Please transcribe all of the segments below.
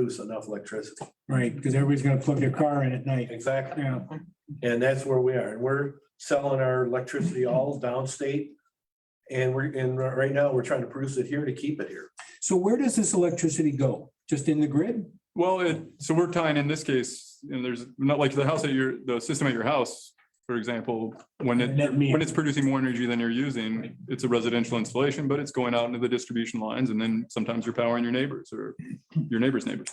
produce enough electricity. right? Because everybody's gonna plug their car in at night. Exactly. Yeah, And that's where we are. And we're selling our electricity all downstate. And we're, and right now, we're trying to produce it here to keep it here. so where does this electricity go? Just in the grid? Well, it, so we're tying in this case, and there's not like the house at your, the system at your house, for example, when it, Net meter. when it's producing more energy than you're using, it's a residential installation, but it's going out into the distribution lines and then sometimes you're powering your neighbors or your neighbor's neighbors.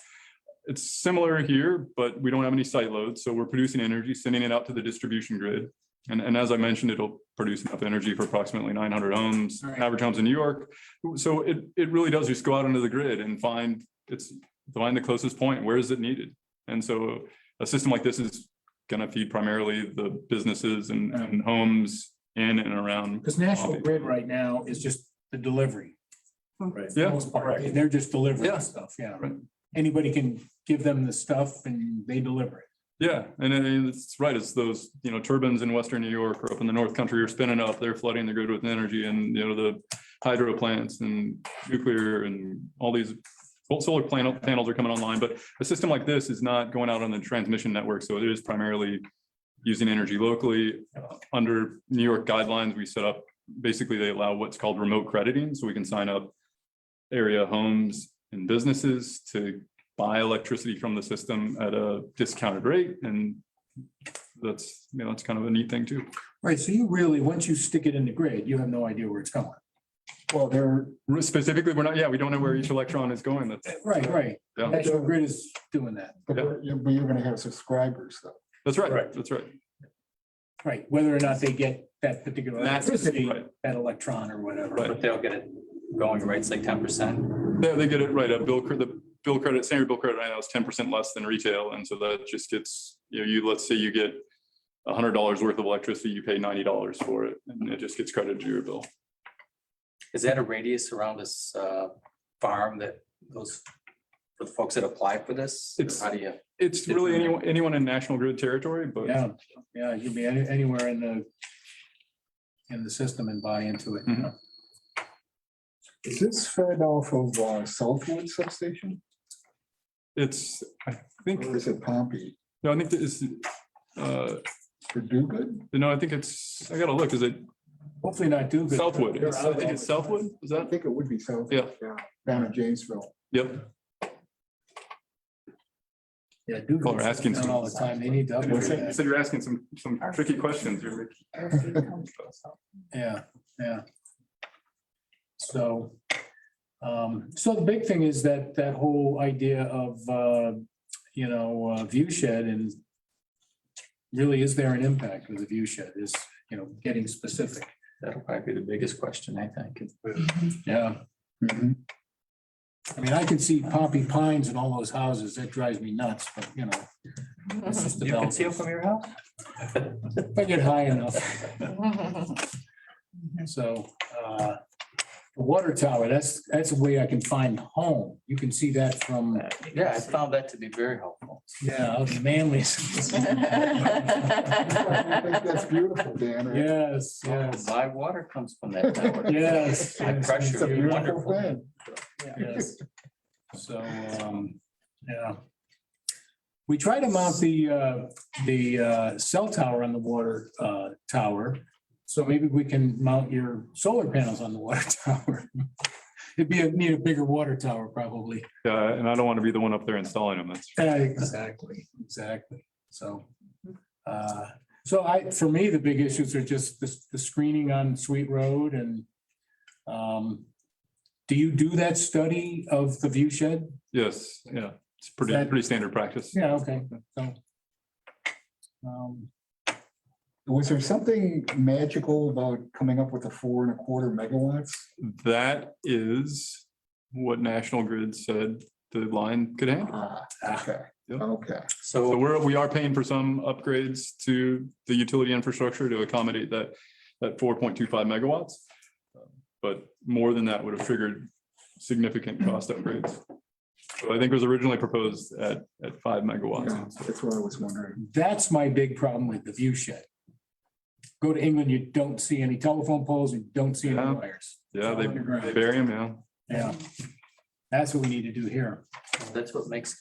It's similar here, but we don't have any site loads, so we're producing energy, sending it out to the distribution grid. And, and as I mentioned, it'll produce enough energy for approximately nine hundred homes, All right. average homes in New York. So it, it really does just go out into the grid and find, it's, find the closest point, where is it needed? And so a system like this is gonna feed primarily the businesses and, and homes in and around. Because National Grid right now is just the delivery. Right. Yeah. Most part, They're just delivering Yeah. stuff, yeah. Right. Anybody can give them the stuff and they deliver it. Yeah, and it- it's right, it's those, you know, turbines in Western New York or up in the North Country are spinning up, they're flooding the grid with energy and, you know, the hydro plants and nuclear and all these well, solar panel panels are coming online, but a system like this is not going out on the transmission network, so it is primarily using energy locally. Under New York guidelines, we set up, basically, they allow what's called remote crediting, so we can sign up area homes and businesses to buy electricity from the system at a discounted rate and that's, you know, that's kind of a neat thing too. Right, so you really, once you stick it in the grid, you have no idea where it's going. well, they're, Specifically, we're not, yeah, we don't know where each electron is going. That's, Right, right. Yeah. National Grid is doing that. but Yeah. you're, but you're gonna have subscribers though. that's right. Correct. That's right. Right, whether or not they get that particular That's- electricity, right. that electron or whatever. Right. But they'll get it going, right? It's like ten percent. They, they get it right. A bill, cre- the bill credit, standard bill credit right now is ten percent less than retail. And so that just gets, you know, you, let's say you get a hundred dollars worth of electricity, you pay ninety dollars for it and it just gets credited to your bill. Is that a radius around this uh, farm that those, for the folks that apply for this? Or It's- How do you? It's really anyone, anyone in national grid territory, but Yeah, yeah, you'd be any- anywhere in the, in the system and buy into it. Mhm. Is this fed off of uh, Southwood substation? it's, I think, Or is it Pompey? no, I think this is, uh, For Duguid? no, I think it's, I gotta look, is it Hopefully not do. good. Southwood. They're It's- I out think all it's the time. Southwood. Is I that? think it would be Southwood. Yeah. Down in Janesville. Yep. Yeah, do. Well, we're asking Down All the time, they need to You upgrade said that. you're asking some, some tricky questions. You're like, Yeah, yeah. So, um, so the big thing is that, that whole idea of, uh, you know, uh, view shed and really is there an impact with the view shed is, you know, getting specific. That'll probably be the biggest question, I think. Yeah. Mm-hmm. I mean, I can see poppy pines in all those houses. That drives me nuts, but you know. it's just You can see it development. from your house? If I get high enough. So, uh, the water tower, that's, that's a way I can find home. You can see that from, Yeah, I found that to be very helpful. yeah, out in Manly. I think That's beautiful, Dan. Yes, yes, Live water comes from that tower. yes. High yes, It's a pressure, beautiful wonderful. thing. yes. So, um, yeah. We try to mount the, uh, the, uh, cell tower on the water, uh, tower. So maybe we can mount your solar panels on the water tower. It'd be, a need a bigger water tower probably. Yeah, and I don't want to be the one up there installing them. That's, Yeah, Exactly, exactly. So, uh, so I, for me, the big issues are just the, the screening on Sweet Road and, um, do you do that study of the view shed? yes, yeah, it's pretty, That- pretty standard practice. Yeah, okay, so. um, Was there something magical about coming up with a four and a quarter megawatts? That is what National Grid said the line could handle. Ah, okay, Yep. okay. So So we're, we are paying for some upgrades to the utility infrastructure to accommodate that, that four point two five megawatts. But more than that would have triggered significant cost upgrades. So I think it was originally proposed at, at five Yeah, megawatts. That's what I was wondering. That's my big problem with the view shed. Go to England, you don't see any telephone poles, you don't see any Yeah. wires. Yeah, they Underground. they bury them, yeah. Yeah, that's what we need to do here. that's what makes